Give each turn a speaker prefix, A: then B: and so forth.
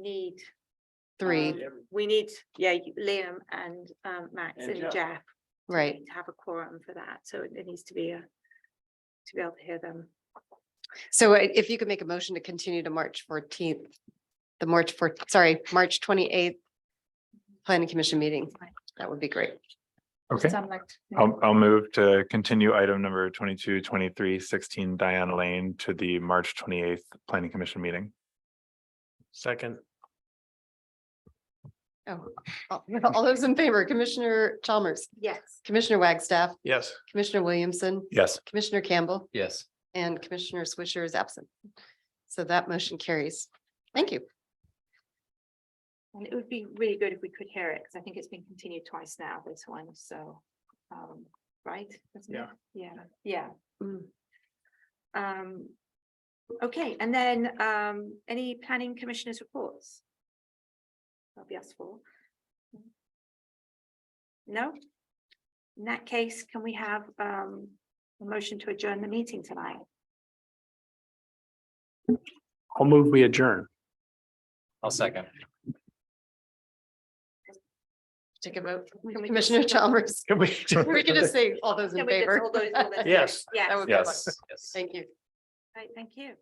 A: need,
B: three,
A: um, we need, yeah, you- Liam and um Max
C: And
A: and
C: Jeff.
A: Jeff. we
B: right?
A: need To have a quorum for that, so it- it needs to be a, to be able to hear them.
B: So i- if you could make a motion to continue to March fourteenth, the March four, sorry, March twenty-eighth planning commission meeting, that would be great.
D: Okay,
A: Some like-
C: Um,
D: I'll, I'll move to continue item number twenty-two, twenty-three, sixteen Diana Lane to the March twenty-eighth Planning Commission meeting.
C: Second.
B: Oh, all all those in favor, Commissioner Chalmers,
A: Yes,
B: Commissioner Wagstaff,
C: Yes.
B: Commissioner Williamson,
D: Yes.
B: Commissioner Campbell,
C: Yes.
B: and Commissioner Swisher is absent. So that motion carries. Thank you.
A: and it would be really good if we could hear it, because I think it's been continued twice now, this one, so, um, right? Isn't it?
C: Yeah.
A: Yeah, yeah.
B: Mm.
A: Um, okay, and then, um, any planning commissioners reports? That'll be us four. No? In that case, can we have, um, a motion to adjourn the meeting tonight?
C: I'll move, we adjourn.
E: I'll second.
B: Take a vote.
A: Can we just-
B: Commissioner Chalmers,
C: Can we?
B: we can just say all those in
A: Can we just
B: favor.
A: all those- all those-
C: Yes.
A: Yes,
B: That would be
E: Yes.
B: Thank you.
A: Right, thank you.